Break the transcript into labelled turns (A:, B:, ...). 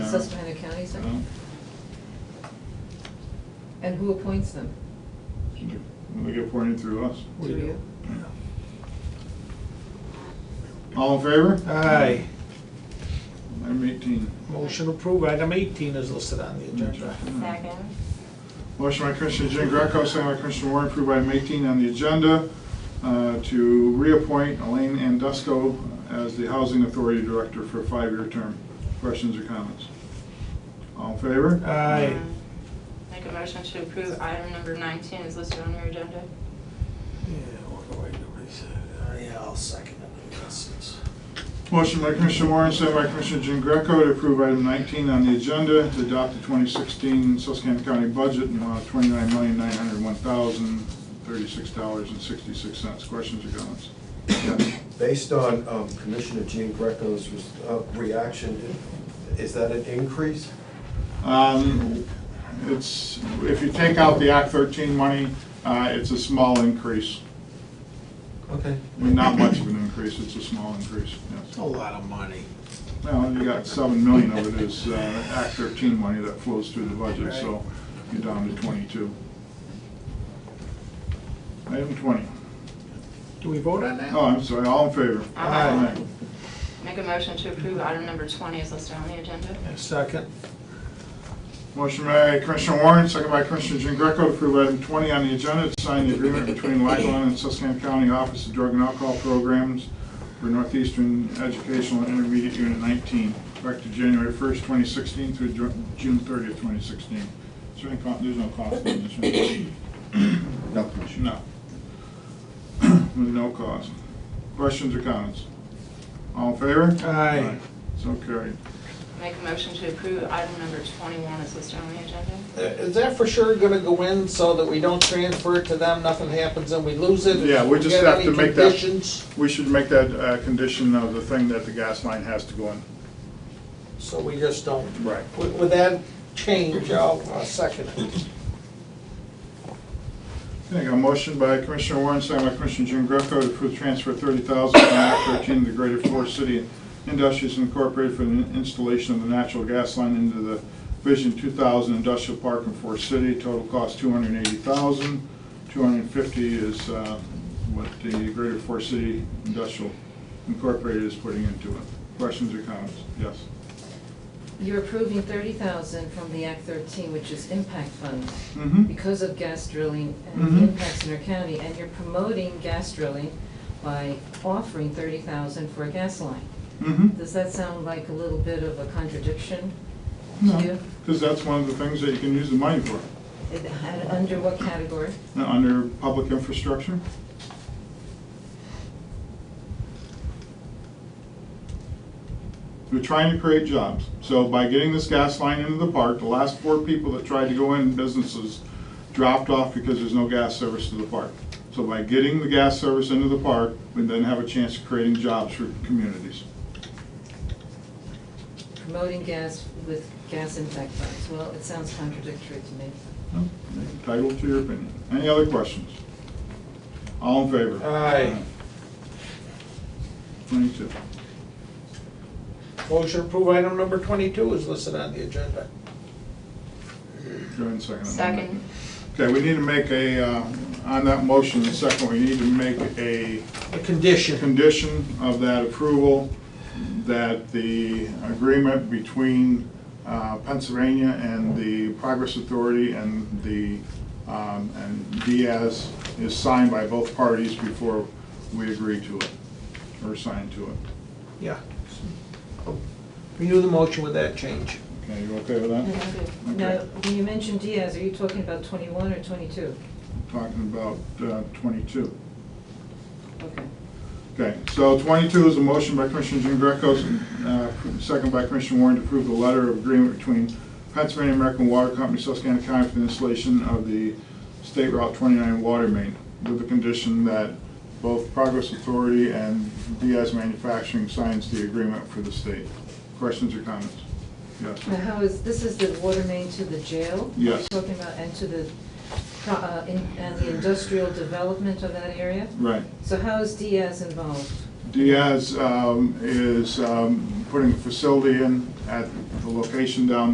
A: Susquehanna County, is that? And who appoints them?
B: We get appointed through us.
A: Do
C: We
A: you?
C: do.
B: All in favor?
C: Aye.
B: Item eighteen.
C: Motion approved. Item 18 is listed on the agenda.
D: Second.
B: Motion by Commissioner Jean Greco, second by Commissioner Warren, approved item 18 on the agenda uh, to reappoint Elaine Andusco as the Housing Authority Director for a five-year term. Questions or comments? All in favor?
C: Aye.
D: Make a motion to approve item number 19 is listed on your agenda.
C: Yeah, what do I do? He said, uh, Yeah, I'll second it. Yes, it's-
B: Motion by Commissioner Warren, second by Commissioner Jean Greco to approve item 19 on the agenda to adopt the 2016 Susquehanna County budget in the amount of $29,901,036.66. Questions or comments? Yes.
E: Based on um, Commissioner Jean Greco's uh, reaction, is that an increase?
B: Um, It's, if you take out the Act 13 money, uh, it's a small increase.
E: Okay.
B: Not much of an increase, it's a small increase,
C: It's
B: yes.
C: a lot of money.
B: Well, you got 7 million of it is uh, Act 13 money that flows through the budget, so you're down to 22. Item 20.
C: Do we vote on that?
B: Oh, I'm sorry, all in favor?
D: Aye. Make a motion to approve item number 20 is listed on the agenda.
C: Yeah, Second.
B: Motion by Commissioner Warren, second by Commissioner Jean Greco to approve item 20 on the agenda, to sign the agreement between Lackawanna and Susquehanna County Office of Drug and Alcohol Programs for Northeastern Educational Intermediate Unit 19, effective January 1st, 2016 through Ju- June 30th, 2016. Is there any, co- there's no cost in this, right?
E: No, Commissioner.
B: No. With no cost. Questions or comments? All in favor?
C: Aye.
B: So carried.
D: Make a motion to approve item number 21 is listed on the agenda.
C: Uh, Is that for sure gonna go in so that we don't transfer it to them, nothing happens and we lose it?
B: Yeah, we just
C: Got
B: have to
C: any
B: make that-
C: conditions?
B: We should make that uh, condition of the thing that the gas line has to go in.
C: So we just don't,
B: Right.
C: with with that change, I'll uh, second it.
B: Okay, got a motion by Commissioner Warren, second by Commissioner Jean Greco to approve transfer thirty thousand from Act thirteen to the Greater Forest City Industries Incorporated for the installation of the natural gas line into the Vision two thousand industrial park in Forest City. Total cost two hundred and eighty thousand. Two hundred and fifty is uh, what the Greater Forest City Industrial Incorporated is putting into it. Questions or comments? Yes.
A: You're approving thirty thousand from the Act thirteen, which is impact fund,
B: Mm-hmm.
A: because of gas drilling and
B: Mhm.
A: the impacts in our county, and you're promoting gas drilling by offering thirty thousand for a gas line.
B: Mm-hmm.
A: Does that sound like a little bit of a contradiction to
B: No,
A: you?
B: because that's one of the things that you can use the money for,
A: It- and Under what category?
B: uh, under public infrastructure. We're trying to create jobs. So by getting this gas line into the park, the last four people that tried to go in businesses dropped off because there's no gas service to the park. So by getting the gas service into the park, we then have a chance of creating jobs for communities.
A: Promoting gas with gas impact funds. Well, it sounds contradictory to me.
B: No, you're Entitled to your opinion. Any other questions? All in favor?
C: Aye.
B: Twenty-two.
C: Motion to approve item number twenty-two is listed on the agenda.
B: Go ahead and second. it.
D: Second.
B: Okay, we need to make a, uh, on that motion, the second, we need to make a
C: A condition.
B: condition of that approval that the agreement between uh, Pennsylvania and the Progress Authority and the, um, and Diaz is signed by both parties before we agree to it, or sign to it.
C: Yeah. oh, Renew the motion with that change.
B: Okay, you okay with that?
A: Now,
B: Okay.
A: when you mentioned Diaz, are you talking about twenty-one or twenty-two?
B: Talking about uh, 22.
A: Okay.
B: Okay, so 22 is a motion by Commissioner Jean Greco, uh, second by Commissioner Warren to approve the letter of agreement between Pennsylvania American Water Company, Susquehanna County for the installation of the State Route 29 water main with the condition that both Progress Authority and Diaz Manufacturing signs the agreement for the state. Questions or comments?
A: Now,
B: Yes.
A: how is, this is the water main to the jail?
B: Yes.
A: We're Talking about, and to the, pro- uh, in- and the industrial development of that area?
B: Right.
A: So how is Diaz involved?
B: Diaz um, is um, putting a facility in at the location down